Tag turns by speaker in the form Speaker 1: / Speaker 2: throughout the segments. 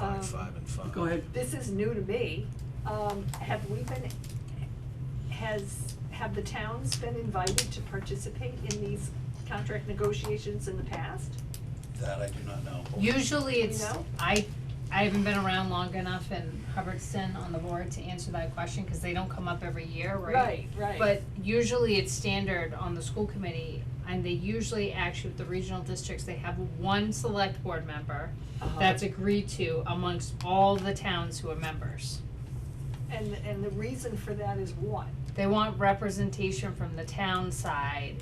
Speaker 1: Um,
Speaker 2: five and five.
Speaker 3: Go ahead.
Speaker 1: this is new to me, um, have we been, has, have the towns been invited to participate in these contract negotiations in the past?
Speaker 2: That I do not know.
Speaker 4: Usually it's,
Speaker 1: know?
Speaker 4: I, I haven't been around long enough in Hubbardston on the board to answer that question, cause they don't come up every year, right?
Speaker 1: Right, right.
Speaker 4: But usually it's standard on the school committee, and they usually actually with the regional districts, they have one select board member
Speaker 1: Uh-huh.
Speaker 4: that's agreed to amongst all the towns who are members.
Speaker 1: And, and the reason for that is what?
Speaker 4: They want representation from the town side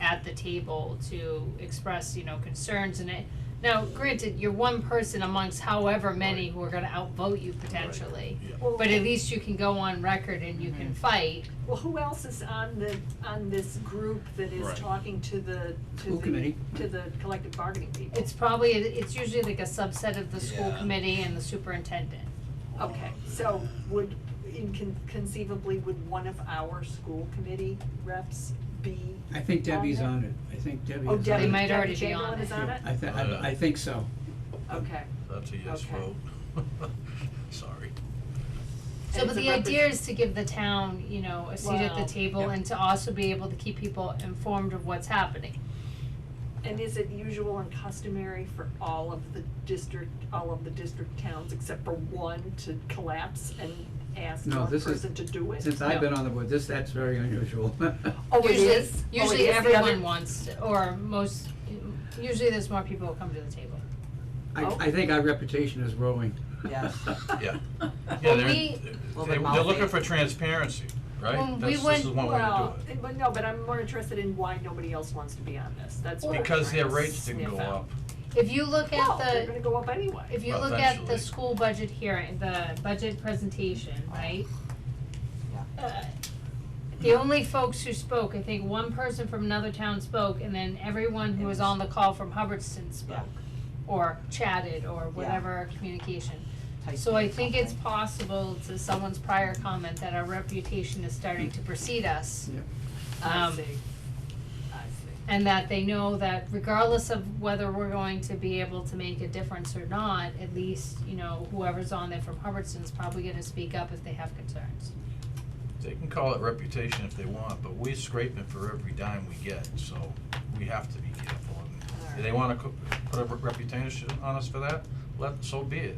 Speaker 4: at the table to express, you know, concerns and it. Now, granted, you're one person amongst however many who are gonna outvote you potentially.
Speaker 2: Yeah.
Speaker 1: Well,
Speaker 4: But at least you can go on record and you
Speaker 2: Mm-hmm.
Speaker 4: can fight.
Speaker 1: Well, who else is on the, on this group that is
Speaker 2: Right.
Speaker 1: talking to the, to
Speaker 3: School
Speaker 1: the,
Speaker 3: committee.
Speaker 1: to the collective bargaining people?
Speaker 4: It's probably, it's usually like a subset of the school
Speaker 2: Yeah.
Speaker 4: committee and the superintendent.
Speaker 1: Okay, so would, incon- conceivably, would one of our school committee reps be?
Speaker 3: I think Debbie's
Speaker 1: there?
Speaker 3: on it, I think Debbie is
Speaker 1: Oh,
Speaker 3: on it.
Speaker 1: Debbie,
Speaker 4: might
Speaker 1: Debbie
Speaker 4: already be
Speaker 1: Chamberlain
Speaker 4: on
Speaker 1: is
Speaker 4: it.
Speaker 1: on
Speaker 3: Yeah,
Speaker 1: it?
Speaker 3: I thi-
Speaker 2: Oh, yeah.
Speaker 3: I, I think so.
Speaker 1: Okay.
Speaker 2: That's a yes
Speaker 1: Okay.
Speaker 2: vote. Sorry.
Speaker 4: So,
Speaker 1: And
Speaker 4: but
Speaker 1: it's a
Speaker 4: the
Speaker 1: repres-
Speaker 4: idea is to give the town, you know, a seat at the
Speaker 1: Wow.
Speaker 4: table
Speaker 2: Yeah.
Speaker 4: and to also be able to keep people informed of what's happening.
Speaker 1: And is it usual and customary for all of the district, all of the district towns except for one to collapse and ask
Speaker 3: No,
Speaker 1: one
Speaker 3: this is-
Speaker 1: person to do it?
Speaker 3: Since I've been on the board, this, that's very unusual.
Speaker 1: Oh, it
Speaker 4: usually,
Speaker 1: is? Oh, it
Speaker 4: Usually
Speaker 1: is the other-
Speaker 4: everyone wants, or most, usually there's more people who come to the table.
Speaker 3: I,
Speaker 1: Oh.
Speaker 3: I think our reputation is growing.
Speaker 5: Yeah.
Speaker 2: Yeah. Yeah,
Speaker 4: Well,
Speaker 2: they're,
Speaker 4: we-
Speaker 5: Well,
Speaker 2: they-
Speaker 5: but
Speaker 2: they're looking
Speaker 5: Maltese-
Speaker 2: for transparency,
Speaker 4: Well,
Speaker 2: right?
Speaker 4: we
Speaker 2: That's,
Speaker 4: went-
Speaker 2: this is one way to
Speaker 1: Well,
Speaker 2: do it.
Speaker 1: eh, but no, but I'm more interested in why nobody else wants to be on this, that's what I'm
Speaker 2: Because their
Speaker 1: trying to
Speaker 2: rates didn't
Speaker 1: sniff
Speaker 2: go
Speaker 1: out.
Speaker 2: up.
Speaker 4: If you look
Speaker 1: Well,
Speaker 4: at
Speaker 1: they're
Speaker 4: the,
Speaker 1: gonna go up anyway.
Speaker 4: if you look at the
Speaker 2: Eventually.
Speaker 4: school budget hearing, the budget presentation, right? Uh, The only folks who spoke, I think one person from another town spoke, and then everyone who was on the call from Hubbardston spoke.
Speaker 5: Yeah.
Speaker 4: Or chatted, or whatever communication.
Speaker 5: Type
Speaker 4: So I
Speaker 5: or
Speaker 4: think it's
Speaker 5: something.
Speaker 4: possible to someone's prior comment that our reputation is starting to precede us.
Speaker 3: Yep.
Speaker 1: I
Speaker 4: Um,
Speaker 1: see, I see.
Speaker 4: And that they know that regardless of whether we're going to be able to make a difference or not, at least, you know, whoever's on there from Hubbardston's probably gonna speak up if they have concerns.
Speaker 2: They can call it reputation if they want, but we're scraping for every dime we get, so we have to be careful. And If they wanna co- put a re- reputation on us for that, let, so be it.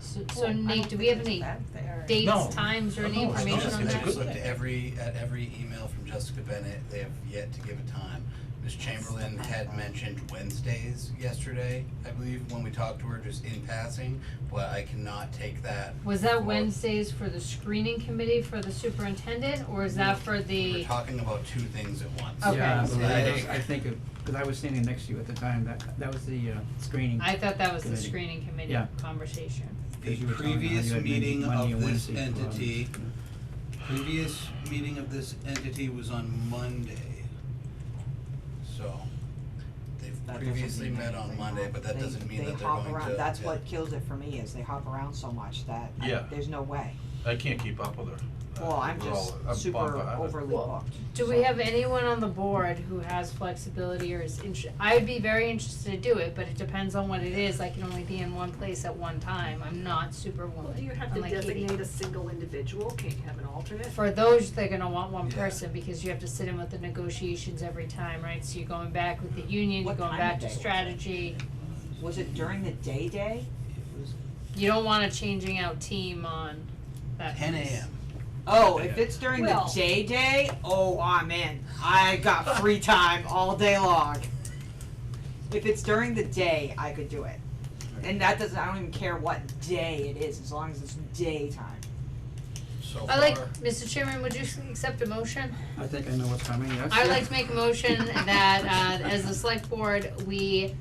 Speaker 4: So,
Speaker 5: Well,
Speaker 4: so
Speaker 5: I
Speaker 4: Nate,
Speaker 5: don't
Speaker 4: do we
Speaker 5: think
Speaker 4: have
Speaker 5: it's
Speaker 4: any
Speaker 5: that fair.
Speaker 2: No.
Speaker 4: dates, times, or any
Speaker 2: No, it's
Speaker 4: information
Speaker 2: not.
Speaker 4: on
Speaker 2: It's a
Speaker 4: that?
Speaker 2: good
Speaker 6: looked at every, at every email from Jessica Bennett, they have yet to give a time. Ms. Chamberlain had mentioned Wednesdays yesterday, I believe, when we talked to her, just in passing, but I cannot take that.
Speaker 4: Was that
Speaker 6: for-
Speaker 4: Wednesdays for the screening committee for the superintendent, or is that for
Speaker 6: We We're
Speaker 4: the,
Speaker 6: talking about two things at once.
Speaker 4: Okay.
Speaker 3: Yeah,
Speaker 6: So
Speaker 3: but I
Speaker 6: that
Speaker 3: think-
Speaker 6: is-
Speaker 3: I think, because I was standing next to you at the time, that, that was the uh, screening.
Speaker 4: I thought that was the
Speaker 3: Committee.
Speaker 4: screening committee
Speaker 3: Yeah.
Speaker 4: conversation.
Speaker 6: The
Speaker 3: Because you were telling me how
Speaker 6: previous
Speaker 3: you had Monday-
Speaker 6: meeting
Speaker 3: Monday
Speaker 6: of
Speaker 3: and
Speaker 6: this
Speaker 3: Wednesday for, um,
Speaker 6: entity, previous meeting of this entity was on Monday. So,
Speaker 5: That
Speaker 6: they've
Speaker 5: doesn't
Speaker 6: previously
Speaker 5: mean
Speaker 6: met
Speaker 5: anything.
Speaker 6: on Monday, but that
Speaker 5: They-
Speaker 6: doesn't mean
Speaker 5: they
Speaker 6: that they're
Speaker 5: hop
Speaker 6: going to.
Speaker 5: around. That's
Speaker 6: yeah.
Speaker 5: what kills it for me, is they hop around so much that I-
Speaker 2: Yeah.
Speaker 5: there's no way.
Speaker 2: I can't keep up with her. Uh,
Speaker 5: Well, I'm
Speaker 2: we're
Speaker 5: just
Speaker 2: all- I'm
Speaker 5: super
Speaker 2: bombarded.
Speaker 5: overly
Speaker 4: Well,
Speaker 5: booked.
Speaker 4: Do
Speaker 5: so-
Speaker 4: we have anyone on the board who has flexibility or is inter- I'd be very interested to do it, but it depends on what it is, I can only be in one place at one time, I'm not
Speaker 1: Well,
Speaker 4: superwoman,
Speaker 1: do you have to
Speaker 4: unlike Katie.
Speaker 1: designate a single individual, can't you have an alternate?
Speaker 4: For those, they're gonna want one
Speaker 6: Yeah.
Speaker 4: person, because you have to sit in with the negotiations every time, right, so you're going back with the union, you're
Speaker 5: What
Speaker 4: going
Speaker 5: time
Speaker 4: back
Speaker 5: of
Speaker 4: to
Speaker 5: day was it?
Speaker 4: strategy.
Speaker 5: Was it during the day day? It was-
Speaker 4: You don't want a changing out team on that
Speaker 6: Ten
Speaker 4: piece.
Speaker 6: AM.
Speaker 5: Oh, if it's during
Speaker 1: Well-
Speaker 5: the day day, oh, I'm in. I got free time all day long. If it's during the day, I could do it. And that doesn't, I don't even care what day it is, as long as it's daytime.
Speaker 6: So
Speaker 4: I like,
Speaker 6: far-
Speaker 4: Mr. Chairman, would you accept a motion?
Speaker 3: I think I know what's coming, yes.
Speaker 4: I'd like to make a motion that, uh, as the select board, we,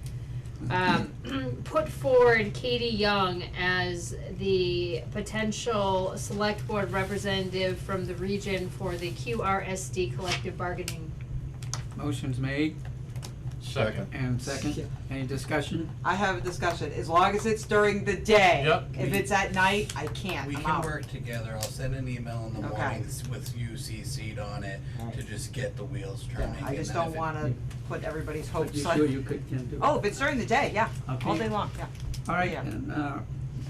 Speaker 4: um, put forward Katie Young as the potential select board representative from the region for the QRSD collective bargaining.
Speaker 3: Motion's made
Speaker 2: Second.
Speaker 3: and second,
Speaker 5: Yeah.
Speaker 3: any discussion?
Speaker 5: I have a discussion, as long as it's during the day.
Speaker 2: Yep.
Speaker 5: If it's at night, I can't,
Speaker 6: We
Speaker 5: I'm
Speaker 6: can
Speaker 5: out.
Speaker 6: work together, I'll send an email in the
Speaker 5: Okay.
Speaker 6: morning s- with you CC'd on it to
Speaker 5: Alright.
Speaker 6: just get the wheels
Speaker 5: Yeah,
Speaker 6: turning.
Speaker 5: I
Speaker 6: and
Speaker 5: just
Speaker 6: then
Speaker 5: don't
Speaker 6: if it-
Speaker 5: wanna put everybody's
Speaker 1: Oh,
Speaker 3: But
Speaker 5: hopes
Speaker 3: you
Speaker 5: on.
Speaker 3: sure you could, can do it?
Speaker 5: Oh, if it's during the day, yeah, all
Speaker 3: Okay.
Speaker 5: day long, yeah.
Speaker 3: All right,
Speaker 5: Yeah.
Speaker 3: and, uh,